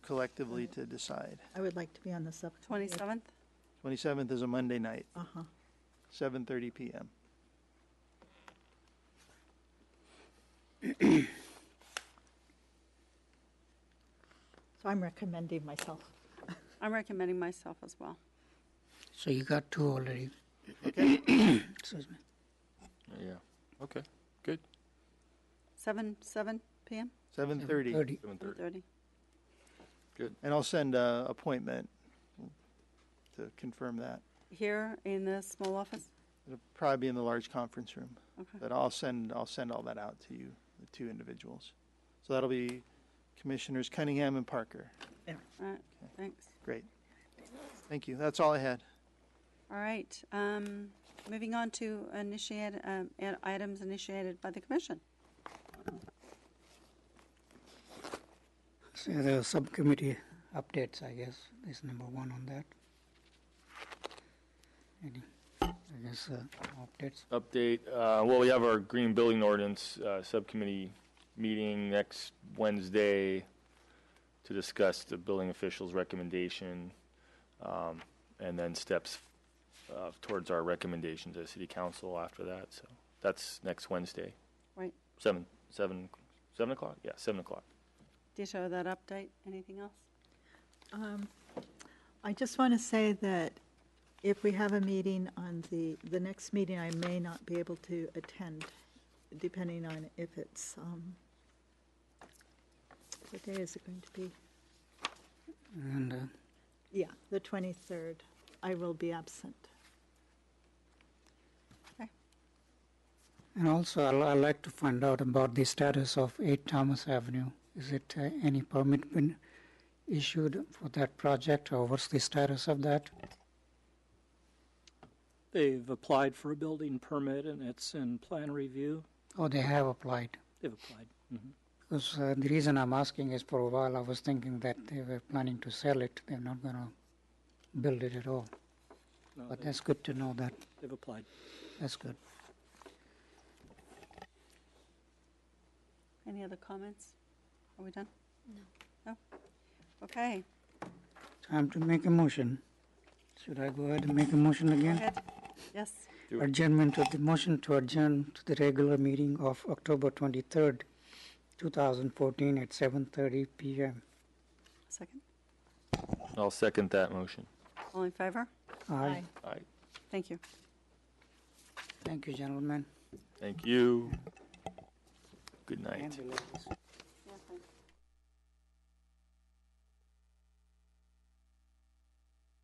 collectively to decide. I would like to be on the sub. 27th? 27th is a Monday night, Uh-huh. 7:30 PM. So I'm recommending myself. I'm recommending myself as well. So you got two already. Okay. Excuse me. Yeah. Okay. Good. 7, 7 p.m., 7:30. 7:30. Seven thirty. 7:30? And I'll send a appointment to confirm that. Here in the small office? It'll probably be in the large conference room. Okay. But I'll send, I'll send all that out to you, the two individuals. So that'll be Commissioners Cunningham and Parker. All right, thanks. Great. Thank you. That's all I had. All right, um, moving on to initiate, um, ad- items initiated by the commission. So the subcommittee updates, I guess, is number one on that. Any, I guess, uh, updates? Update. Uh, well, we have our green building ordinance uh, subcommittee meeting next Wednesday to discuss the building official's recommendation um, and then steps uh, towards our recommendation to city council after that. So that's next Wednesday. Right. Seven, seven, seven o'clock. Yeah, seven o'clock. Ditto that update, anything else? Um, I just want to say that if we have a meeting on the, the next meeting, I may not be able to attend, depending on if it's, um, what day is it going to be? And uh, Yeah, the 23rd. I will be absent. and also, I'd, I'd like to find out about the status of 8 Thomas Avenue. Is it uh, any permit been issued for that project, or what's the status of that? They've applied for a building permit and it's in plan review. Oh, they have applied. They've applied. Mhm. Because uh, the reason I'm asking is for a while I was thinking that they were planning to sell it. They're not going to build it at all. No, But they- that's good to know that. They've applied. That's good. Any other comments? Are we done? No. No? Okay, Time to make a motion. Should I go ahead and make a motion go again? ahead. Yes, Do it. Adjournment of the motion to adjourn to the regular meeting of October 23rd, 2014 at 7:30 p.m. second. I'll second that motion. All in favor? Aye. All right. Thank you. Thank you, gentlemen. Thank you. Good night. And the ladies.